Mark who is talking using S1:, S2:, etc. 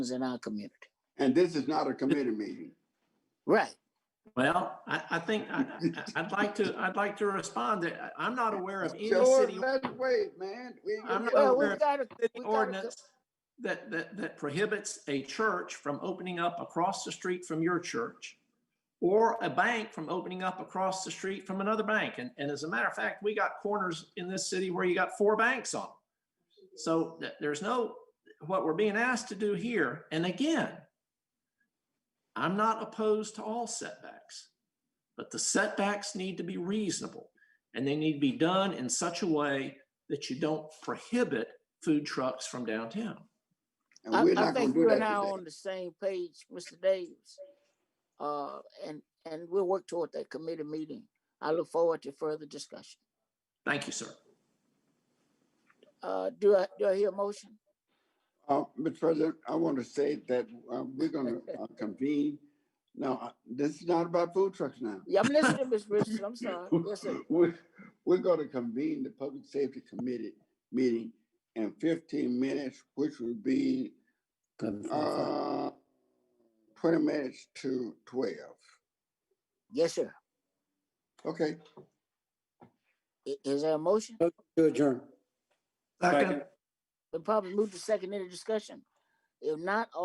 S1: in our community.
S2: And this is not a committee meeting.
S1: Right.
S3: Well, I, I think, I, I- I'd like to, I'd like to respond that I- I'm not aware of any
S2: George,
S3: city,
S2: let's wait, man. We-
S3: I'm not
S1: Well,
S3: aware
S1: we
S3: of
S1: gotta, we
S3: city
S1: gotta,
S3: ordinance that, that, that prohibits a church from opening up across the street from your church or a bank from opening up across the street from another bank. And, and as a matter of fact, we got corners in this city where you got four banks on. 'em. So th- there's no, what we're being asked to do here, and again, I'm not opposed to all setbacks, but the setbacks need to be reasonable and they need to be done in such a way that you don't prohibit food trucks from downtown.
S2: And
S1: I,
S2: we're
S1: I
S2: not gonna
S1: think
S2: do
S1: you
S2: that
S1: and I are
S2: today.
S1: on the same page, Mr. Davis. Uh, and, and we'll work toward that committee meeting. I look forward to further discussion.
S3: Thank you, sir.
S1: Uh, do I, do I hear a motion?
S2: Uh, Mr. President, I want to say that, uh, we're gonna uh, convene. No, I- this is not about food trucks now.
S1: Yeah, I'm listening, Ms. Richardson. I'm sorry. Yes, sir.
S2: We're, we're gonna convene the Public Safety Committee meeting in fifteen minutes, which would be, uh, twenty minutes to twelve.
S1: Yes, sir.
S2: Okay,
S1: I- Is there a motion?
S4: To adjourn.
S3: Second.
S1: The probably moved to second in the discussion. If not,